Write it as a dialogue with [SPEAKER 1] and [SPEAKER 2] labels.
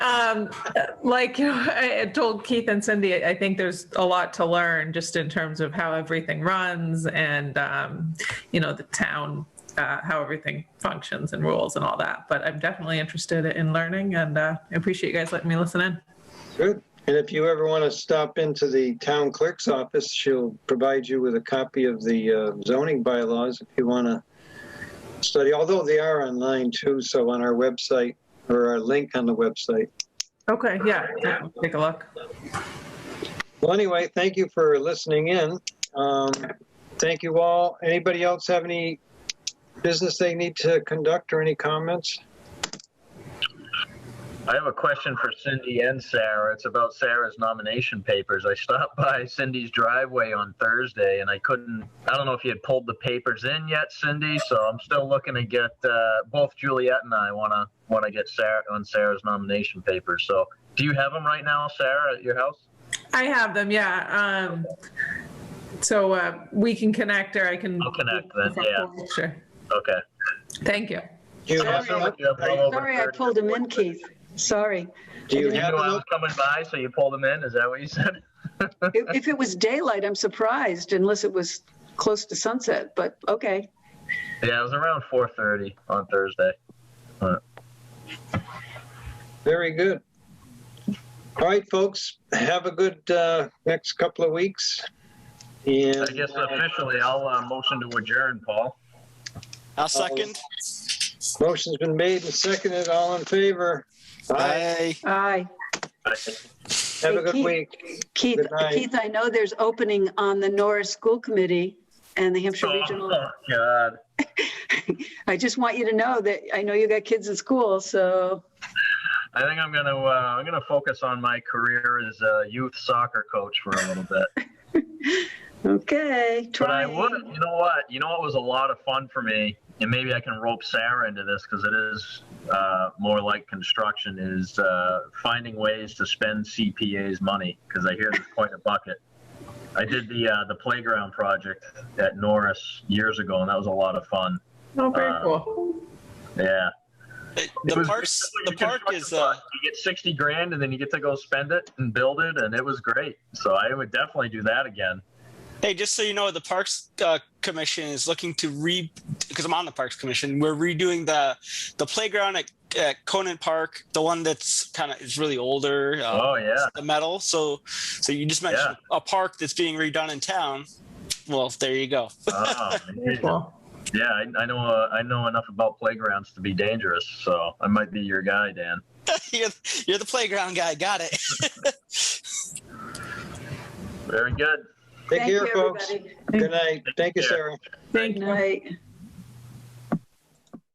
[SPEAKER 1] um, like you know, I I told Keith and Cindy, I I think there's a lot to learn just in terms of how everything runs and, um, you know, the town, uh, how everything functions and rules and all that. But I'm definitely interested in learning and uh, I appreciate you guys letting me listen in.
[SPEAKER 2] Good. And if you ever want to stop into the town clerk's office, she'll provide you with a copy of the uh, zoning bylaws if you want to study, although they are online too, so on our website or our link on the website.
[SPEAKER 1] Okay, yeah, I'll take a look.
[SPEAKER 2] Well, anyway, thank you for listening in. Um, Thank you all. Anybody else have any business they need to conduct or any comments?
[SPEAKER 3] I have a question for Cindy and Sarah. It's about Sarah's nomination papers. I stopped by Cindy's driveway on Thursday and I couldn't, I don't know if you had pulled the papers in yet, Cindy, so I'm still looking to get, uh, both Juliet and I wanna, wanna get Sarah, on Sarah's nomination papers. So, do you have them right now, Sarah, at your house?
[SPEAKER 1] I have them, yeah. Um, so uh, we can connect or I can.
[SPEAKER 3] I'll connect then, yeah.
[SPEAKER 1] Sure.
[SPEAKER 3] Okay.
[SPEAKER 1] Thank you.
[SPEAKER 2] Do you
[SPEAKER 3] It
[SPEAKER 2] have,
[SPEAKER 3] wasn't
[SPEAKER 2] them
[SPEAKER 3] like you had them all over
[SPEAKER 4] Sorry, I
[SPEAKER 3] 30.
[SPEAKER 4] pulled him in, Keith. Sorry.
[SPEAKER 2] do you
[SPEAKER 3] You knew
[SPEAKER 2] have
[SPEAKER 3] I
[SPEAKER 2] them
[SPEAKER 3] was coming by, so you pulled them in? Is that what you said?
[SPEAKER 4] If, if it was daylight, I'm surprised unless it was close to sunset, but okay.
[SPEAKER 3] Yeah, it was around 4:30 on Thursday.
[SPEAKER 2] Very good. All right, folks, have a good uh, next couple of weeks. And
[SPEAKER 3] I guess officially, I'll uh, motion to adjourn, Paul.
[SPEAKER 5] I'll second.
[SPEAKER 2] motion's been made and seconded. All in favor? Aye.
[SPEAKER 4] Aye.
[SPEAKER 5] Bye.
[SPEAKER 2] Have a good week.
[SPEAKER 4] Keith,
[SPEAKER 2] Good night.
[SPEAKER 4] Keith, I know there's opening on the Norris School Committee and the Hampshire Regional.
[SPEAKER 3] Oh, God.
[SPEAKER 4] I just want you to know that I know you got kids in school, so
[SPEAKER 3] I think I'm gonna uh, I'm gonna focus on my career as a youth soccer coach for a little bit.
[SPEAKER 4] okay.
[SPEAKER 3] But I
[SPEAKER 4] Try.
[SPEAKER 3] would, you know what? You know what was a lot of fun for me, and maybe I can rope Sarah into this because it is uh, more like construction is uh, finding ways to spend CPA's money because I hear there's quite a bucket. I did the uh, the playground project at Norris years ago, and that was a lot of fun.
[SPEAKER 1] Oh, very
[SPEAKER 3] Uh,
[SPEAKER 1] cool.
[SPEAKER 3] Yeah. It
[SPEAKER 5] The
[SPEAKER 3] was
[SPEAKER 5] parks,
[SPEAKER 3] basically
[SPEAKER 5] the
[SPEAKER 3] you
[SPEAKER 5] park
[SPEAKER 3] construct
[SPEAKER 5] is,
[SPEAKER 3] the
[SPEAKER 5] uh,
[SPEAKER 3] park, you get 60 grand and then you get to go spend it and build it and it was great. So I would definitely do that again.
[SPEAKER 5] hey, just so you know, the Parks uh, Commission is looking to re, because I'm on the Parks Commission, we're redoing the, the playground at, at Conan Park, the one that's kind of, is really older. Uh,
[SPEAKER 3] Oh yeah.
[SPEAKER 5] the metal. So, so you just mentioned a park that's being redone in town. Well, there you go.
[SPEAKER 3] Oh,
[SPEAKER 1] Very
[SPEAKER 3] man.
[SPEAKER 1] cool.
[SPEAKER 3] yeah, I, I know uh, I know enough about playgrounds to be dangerous, so I might be your guy, Dan.
[SPEAKER 5] you're, you're the playground guy. Got it.
[SPEAKER 3] Very good.
[SPEAKER 2] Take
[SPEAKER 4] Thank you,
[SPEAKER 2] care, folks.
[SPEAKER 4] everybody.
[SPEAKER 2] Good night. Thank you,
[SPEAKER 3] Yeah.
[SPEAKER 2] Sarah.
[SPEAKER 1] Thank
[SPEAKER 4] Good
[SPEAKER 1] you.
[SPEAKER 4] night.